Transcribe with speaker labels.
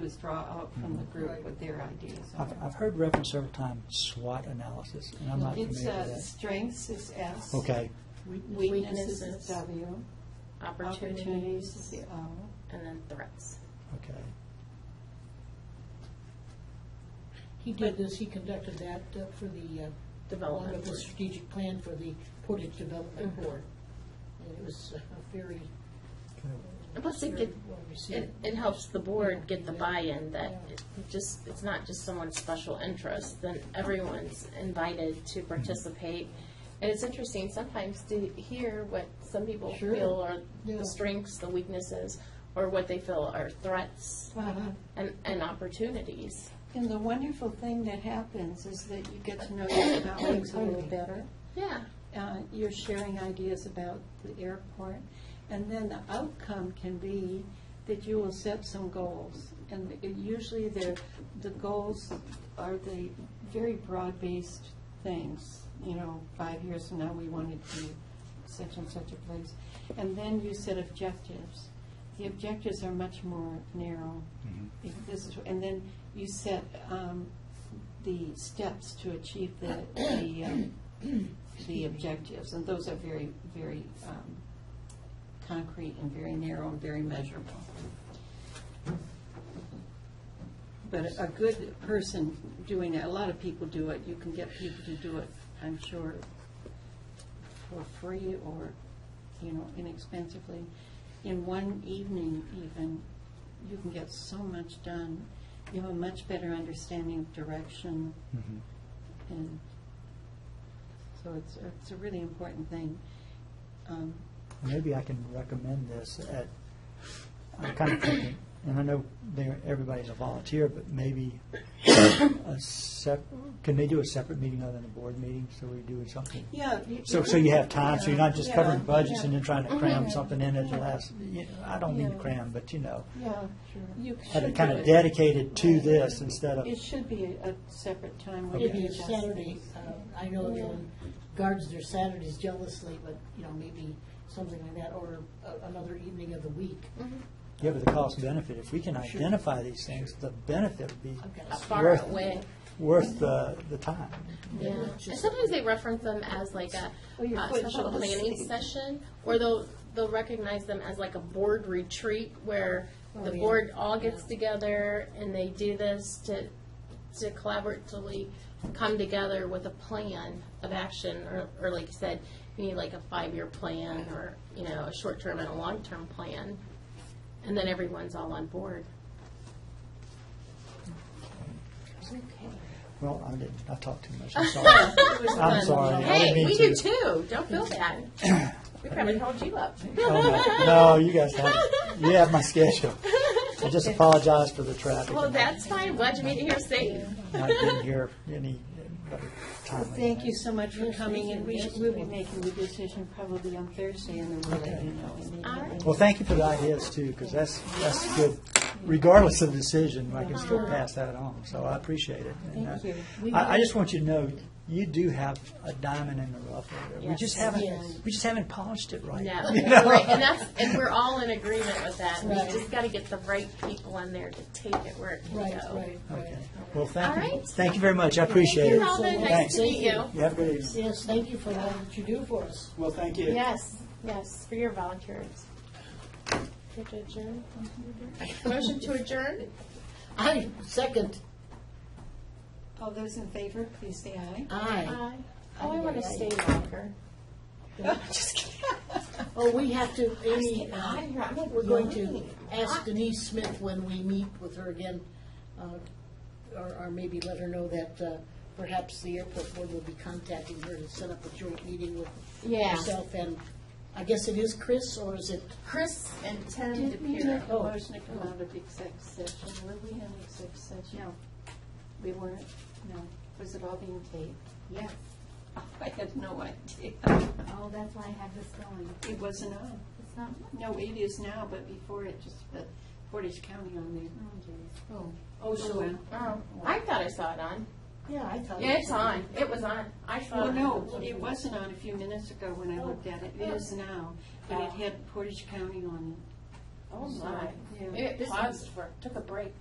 Speaker 1: do is draw out from the group what their ideas
Speaker 2: I've,
Speaker 1: are.
Speaker 2: I've heard reference several times, SWOT analysis, and I'm not familiar
Speaker 1: It's,
Speaker 2: with
Speaker 1: uh,
Speaker 2: that.
Speaker 1: strengths is S.
Speaker 2: Okay,
Speaker 1: Weaknesses is W. Opportunities is
Speaker 3: opportunities,
Speaker 1: the O.
Speaker 3: and then threats.
Speaker 2: okay.
Speaker 4: He did this, he conducted that uh, for the, uh,
Speaker 3: Development
Speaker 4: one of the
Speaker 3: board.
Speaker 4: strategic plan for the Portage Development
Speaker 3: Mhm.
Speaker 4: Board. And it was uh, very.
Speaker 3: And plus, it,
Speaker 4: very
Speaker 3: get-
Speaker 4: well
Speaker 3: it,
Speaker 4: received.
Speaker 3: it helps the board get the buy-in that it just, it's not just someone's special interest, then everyone's invited to
Speaker 4: Mm-hmm.
Speaker 3: participate. And it's interesting sometimes to hear what some people
Speaker 4: Sure.
Speaker 3: feel are
Speaker 4: Yeah.
Speaker 3: the strengths, the weaknesses, or what they feel are threats
Speaker 4: Uh-huh.
Speaker 3: and, and opportunities.
Speaker 1: And the wonderful thing that happens is that you get to know your colleagues a little better.
Speaker 3: Yeah.
Speaker 1: uh, you're sharing ideas about the airport, and then the outcome can be that you will set some goals. And it- usually the, the goals are the very broad-based things, you know, five years from now, we want to be such and such a place. And then you set objectives. The objectives are much more narrow. If This is, and then you set um, the steps to achieve the, the um, the objectives, and those are very, very um, concrete and very narrow and very measurable. But a good person doing it, a lot of people do it, you can get people to do it, I'm sure, for free or, you know, inexpensively. In one evening even, you can get so much done. You have a much better understanding of direction
Speaker 2: Mhm.
Speaker 1: and so it's, it's a really important thing. Um,
Speaker 2: Maybe I can recommend this at, I'm kind of thinking, and I know there, everybody's a volunteer, but maybe a sep, can they do a separate meeting other than a board meeting, so we're doing something?
Speaker 1: Yeah.
Speaker 2: So, so you have time, so you're not just
Speaker 1: Yeah,
Speaker 2: covering budgets and
Speaker 1: yeah. Mm-hmm.
Speaker 2: then trying to cram something in at the last, you know, I don't mean to
Speaker 1: Yeah.
Speaker 2: cram, but you know,
Speaker 1: Yeah, you
Speaker 2: have
Speaker 1: should
Speaker 2: it kind
Speaker 1: do
Speaker 2: of
Speaker 1: it.
Speaker 2: dedicated to this instead of,
Speaker 1: It should be a a separate time. when
Speaker 2: Okay.
Speaker 4: It'd be
Speaker 1: you
Speaker 4: a
Speaker 1: adjust
Speaker 4: Saturday,
Speaker 1: things.
Speaker 4: uh, I know everyone guards their Saturdays jealously, but, you know, maybe something like that, or a- another evening of the week.
Speaker 3: Mm-hmm.
Speaker 2: yeah, but the cost benefit, if we can identify these things, the benefit would be
Speaker 4: Okay.
Speaker 3: Far
Speaker 2: Worth-
Speaker 3: away.
Speaker 2: worth the, the time.
Speaker 3: Yeah, and sometimes they reference them as like a,
Speaker 1: Oh, your
Speaker 3: a
Speaker 1: foot
Speaker 3: special
Speaker 1: shows.
Speaker 3: planning session, or they'll they'll recognize them as like a board retreat where the
Speaker 4: Oh, yeah.
Speaker 3: board all gets
Speaker 4: Yeah.
Speaker 3: together and they do this to to collaboratively come together with a plan of action, or, or like you said, you need like a five year plan, or you know a short term and a long term plan, and then everyone's all on board.
Speaker 2: Well, I didn't, I talked too much, I'm sorry. I'm sorry. I
Speaker 3: Hey,
Speaker 2: didn't mean
Speaker 3: we do
Speaker 2: to.
Speaker 3: too. Don't feel bad. We probably held you up.
Speaker 2: Oh, no. No, you guys have, you have my schedule. I just apologize for the traffic.
Speaker 3: Well, that's fine. Glad you made it here safe.
Speaker 2: I didn't hear any uh, timely.
Speaker 1: Thank you so much for
Speaker 4: Yes,
Speaker 1: coming,
Speaker 4: thank
Speaker 1: and
Speaker 4: you.
Speaker 1: we
Speaker 4: Yes,
Speaker 1: will be
Speaker 4: thank you.
Speaker 1: making the decision probably on Thursday, and then we'll let you know. immediately.
Speaker 2: Well, thank you for the ideas too, because that's, that's good. Regardless of the decision, I can still pass that on, so I appreciate it. And, uh,
Speaker 1: Thank you.
Speaker 2: I, I just want you to know, you do have a diamond in the rough over there. We just
Speaker 3: Yes.
Speaker 2: haven't, we just haven't polished it right.
Speaker 3: No,
Speaker 2: You know?
Speaker 3: Right, and that's, and we're all in agreement with that. We just gotta get the right people in there to take it where it can
Speaker 4: Right,
Speaker 3: go.
Speaker 4: right,
Speaker 2: Okay,
Speaker 4: right.
Speaker 2: well,
Speaker 3: All
Speaker 2: thank you,
Speaker 3: right.
Speaker 2: thank you very much, I appreciate it.
Speaker 3: Robin, nice
Speaker 2: Thanks.
Speaker 3: to meet you.
Speaker 2: You have a good evening.
Speaker 4: Yes, thank you for all that you do for us.
Speaker 2: Well, thank you.
Speaker 3: Yes, yes, for your volunteers. Motion to adjourn? Motion to adjourn?
Speaker 4: I second,
Speaker 1: All those in favor, please say aye.
Speaker 4: aye.
Speaker 3: Aye. Oh, I wanna stay longer.
Speaker 4: Oh, we have to, Amy, uh,
Speaker 3: Aye, Robin.
Speaker 4: we're going to ask Denise Smith when we meet with her again, uh, or or maybe let her know that uh, perhaps the airport board will be contacting her to set up a joint meeting with
Speaker 3: Yeah.
Speaker 4: herself and, I guess it is Chris, or is it,
Speaker 3: Chris and Tim
Speaker 1: Did we make
Speaker 3: DePiero.
Speaker 1: a
Speaker 4: Oh.
Speaker 1: motion to come out of exec session? Were we in exec session? No. We weren't? No. Was it all being taped?
Speaker 5: Yes,
Speaker 1: I had no idea.
Speaker 5: oh, that's why I have this going.
Speaker 1: It wasn't on.
Speaker 5: It's not, oh,
Speaker 1: No, it is now, but before it, just the Portage County on there.
Speaker 5: geez.
Speaker 1: Oh. Oh,
Speaker 4: so-
Speaker 1: so,
Speaker 3: Oh, I thought I saw it on.
Speaker 4: Oh,
Speaker 3: Oh,
Speaker 4: yeah, I thought.
Speaker 3: Yeah, it's on. It was on. I saw
Speaker 1: well,
Speaker 5: uh,
Speaker 3: it.
Speaker 1: no, it wasn't on a few minutes ago when
Speaker 5: Oh.
Speaker 1: I looked at it. It is now, but it had Portage County on it.
Speaker 3: Oh my.
Speaker 1: Yeah.
Speaker 3: Maybe it paused for, took a break.